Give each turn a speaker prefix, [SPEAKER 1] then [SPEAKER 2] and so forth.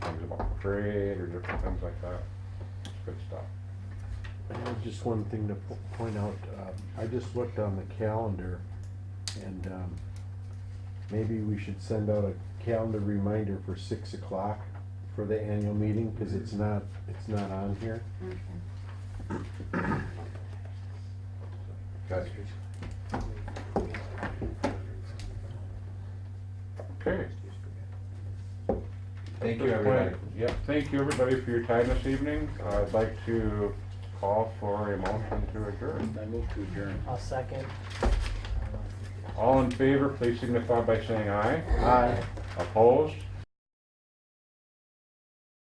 [SPEAKER 1] trade or different things like that. It's good stuff.
[SPEAKER 2] I have Just one thing to po- point out, um, I just looked on the calendar, and um, maybe we should send out a calendar reminder for six o'clock for the annual meeting, because it's not, it's not on here.
[SPEAKER 1] Okay. Okay. At
[SPEAKER 3] Thank you,
[SPEAKER 1] this
[SPEAKER 3] everybody.
[SPEAKER 1] point- Yep, thank you, everybody, for your time this evening. I'd like to call for a motion to adjourn.
[SPEAKER 3] I move to adjourn.
[SPEAKER 4] I'll second.
[SPEAKER 1] All in favor, please signify by saying aye.
[SPEAKER 2] Aye.
[SPEAKER 1] Opposed?